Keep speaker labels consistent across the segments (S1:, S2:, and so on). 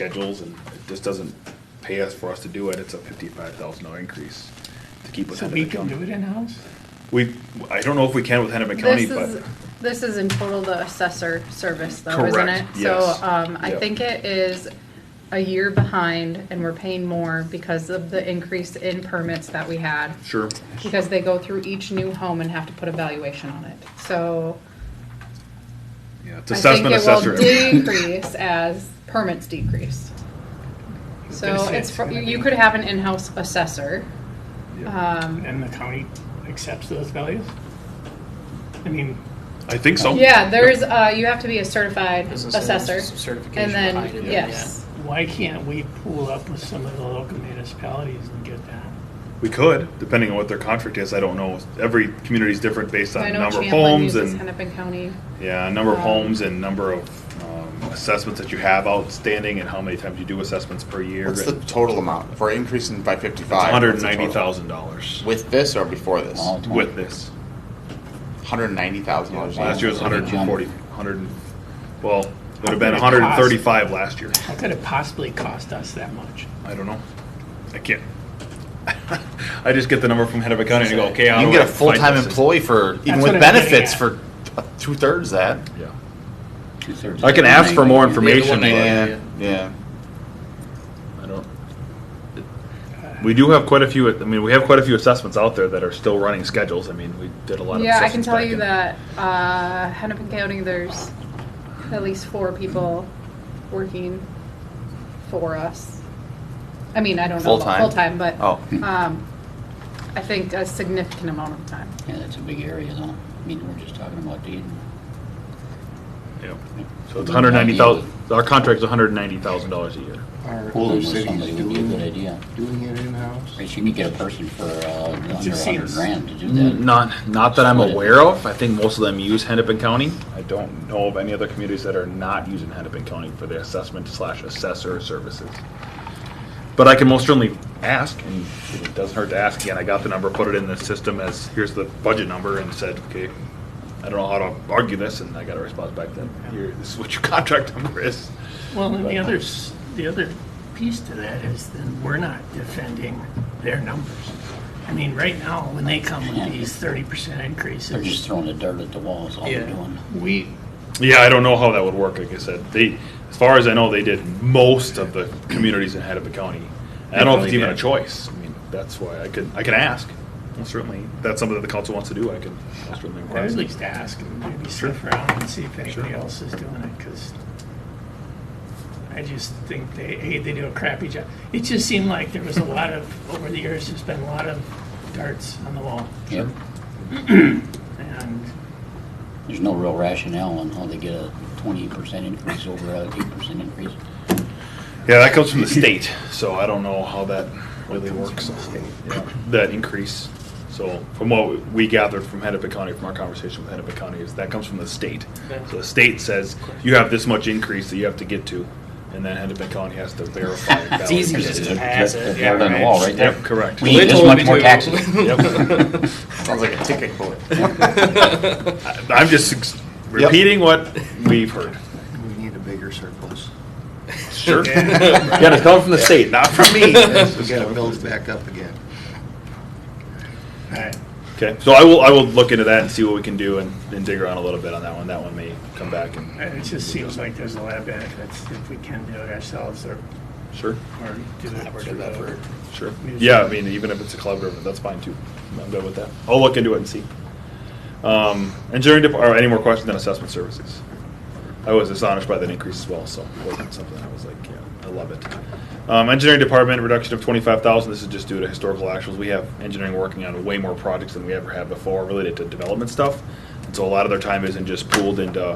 S1: schedules and it just doesn't pay us for us to do it. It's a fifty-five thousand dollar increase to keep with
S2: So we
S1: Hennepin
S2: can do
S1: County.
S2: it in-house?
S1: We, I don't know if we can with Hennepin County,
S3: This
S1: but.
S3: is, this is in total the assessor service though, isn't it?
S1: Correct,
S3: So,
S1: yes.
S3: um, I
S1: Yep.
S3: think it is a year behind and we're paying more because of the increase in permits that we had.
S1: Sure.
S3: Because they go through each new home and have to put a valuation on it. So
S1: Yeah, it's
S3: I think
S1: assessment
S3: it will
S1: assessor.
S3: decrease as permits decrease.
S2: They
S3: So
S2: say
S3: it's, fr-
S2: gonna
S3: you
S2: be-
S3: could have an in-house assessor.
S1: Yeah.
S3: Um,
S2: And the county accepts those values? I mean,
S1: I think so.
S3: yeah, there's, uh, you have to be a certified
S4: There's a
S3: assessor.
S4: certi- certification
S3: And then,
S4: behind it,
S3: yes.
S2: why can't we pool up with some of the local municipalities and get that?
S1: We could, depending on what their contract is. I don't know. Every community is different based
S3: I
S1: on
S3: know
S1: number of
S3: Champlin
S1: homes
S3: uses
S1: and,
S3: Hennepin County.
S1: yeah, number of
S3: Um,
S1: homes and number of um, assessments that you have outstanding and how many times you do assessments per year.
S5: What's the
S1: It's
S5: total amount? If we're increasing by fifty-five.
S1: hundred and
S5: what's the
S1: ninety
S5: total?
S1: thousand dollars
S5: With this or before this?
S1: with this.
S5: Hundred and ninety thousand dollars.
S1: Last year was hundred and forty, hundred and, well, it would have been
S2: How could it
S1: hundred and
S2: cost?
S1: thirty-five last year.
S2: How could it possibly cost us that much?
S1: I don't know. I can't. I just get the number from Hennepin County and go, okay,
S5: You
S1: I'll.
S5: can get a
S1: find
S5: full-time
S1: this.
S5: employee for, even
S2: That's
S5: with
S2: what I'm getting
S5: benefits,
S2: at.
S5: for two-thirds that.
S1: Yeah.
S5: I can ask for more
S4: The other one
S5: information.
S4: I-
S5: Yeah, yeah.
S1: I don't. We do have quite a few, I mean, we have quite a few assessments out there that are still running schedules. I mean, we did a lot of.
S3: Yeah, I can
S1: assessments
S3: tell
S1: back
S3: you
S1: in-
S3: that, uh, Hennepin County, there's at least four people working for us. I mean, I don't know about
S5: Full-time?
S3: full-time, but,
S5: Oh.
S3: um, I think a significant amount of time.
S4: Yeah, that's a big area though. I mean, we're just talking about Dayton.
S1: Yep. So it's hundred ninety thousand, our contract's hundred ninety thousand dollars a year.
S6: Are
S4: Pooling
S6: other
S4: with somebody
S6: cities
S4: would be a good
S6: doing,
S4: idea.
S6: doing it in-house?
S4: Right, you could get a person for uh, under a
S2: just
S4: hundred
S2: seems-
S4: grand to do that.
S1: Not, not that I'm
S4: Split it.
S1: aware of. I think most of them use Hennepin County. I don't know of any other communities that are not using Hennepin County for their assessment slash assessor services. But I can most certainly ask, and it doesn't hurt to ask again. I got the number, put it in the system as, here's the budget number, and said, okay, I don't know how to argue this, and I got a response back then. Here, this is what your contract number is.
S2: Well, and the other, s- the other piece to that is then we're not defending their numbers. I mean, right now, when they come with these thirty percent
S4: They're just
S2: increases,
S4: throwing the dirt at the wall is all they're
S2: Yeah.
S4: doing.
S2: we,
S1: Yeah, I don't know how that would work. Like I said, they, as far as I know, they did most of the communities in Hennepin County. I don't know if it's even a choice. I mean, that's why I could, I can ask. Well, certainly, if that's something that the council wants to do. I can I'll certainly
S2: I would
S1: request.
S2: at least ask and maybe sniff around and see if anybody
S1: Sure.
S2: else is doing it, because I just think they, hey, they do a crappy job. It just seemed like there was a lot of, over the years, there's been a lot of darts on the wall,
S4: Yep.
S2: and
S4: There's no real rationale on how they get a twenty percent increase over a eight percent increase.
S1: Yeah, that comes from the state, so I don't know how that really works. Yeah, That increase. So from what we gathered from Hennepin County, from our conversation with Hennepin County, is that comes from the state. So the state says you have this much increase that you have to get to, and then Hennepin County has to verify. and
S7: It's easier
S1: validate
S7: just
S1: it.
S7: to pass
S4: They're
S7: it.
S4: dirt on the wall right there.
S1: Yep, correct.
S4: We need this much more taxes.
S5: Sounds like a ticket bullet.
S1: I- I'm just ex- repeating what we've heard.
S6: We need a bigger surplus.
S1: Sure. Yeah, it's coming from the state, not from me.
S6: We gotta build back up again.
S1: Okay, so I will, I will look into that and see what we can do and, and dig around a little bit on that one. That one may come back and.
S2: and it just seems like there's a lot of benefits if we can do it ourselves or,
S1: Sure.
S2: or do it through a-
S1: Sure. Yeah, I mean, even if it's a collaborative, that's fine too. I'm good with that. I'll look into it and see. Um, engineering dep- or any more questions on assessment services? I was astonished by that increase as well, so it wasn't something I was like, yeah, I love it. Um, engineering department reduction of twenty-five thousand, this is just due to historical actuals. We have engineering working on way more projects than we ever have before related to development stuff. And so a lot of their time isn't just pooled into,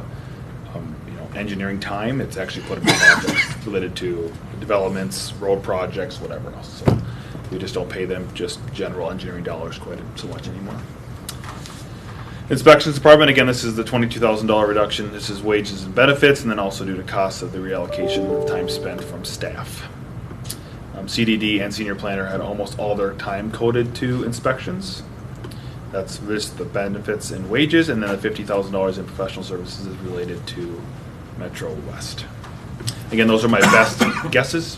S1: um, you know, engineering time, it's actually put in projects related to developments, road projects, whatever else. So we just don't pay them just general engineering dollars quite so much anymore. Inspections Department, again, this is the twenty-two thousand dollar reduction. This is wages and benefits, and then also due to costs of the reallocation of time spent from staff. Um, CDD and senior planner had almost all their time coded to inspections. That's just the benefits and wages, and then the fifty thousand dollars in professional services is related to Metro West. Again, those are my best guesses.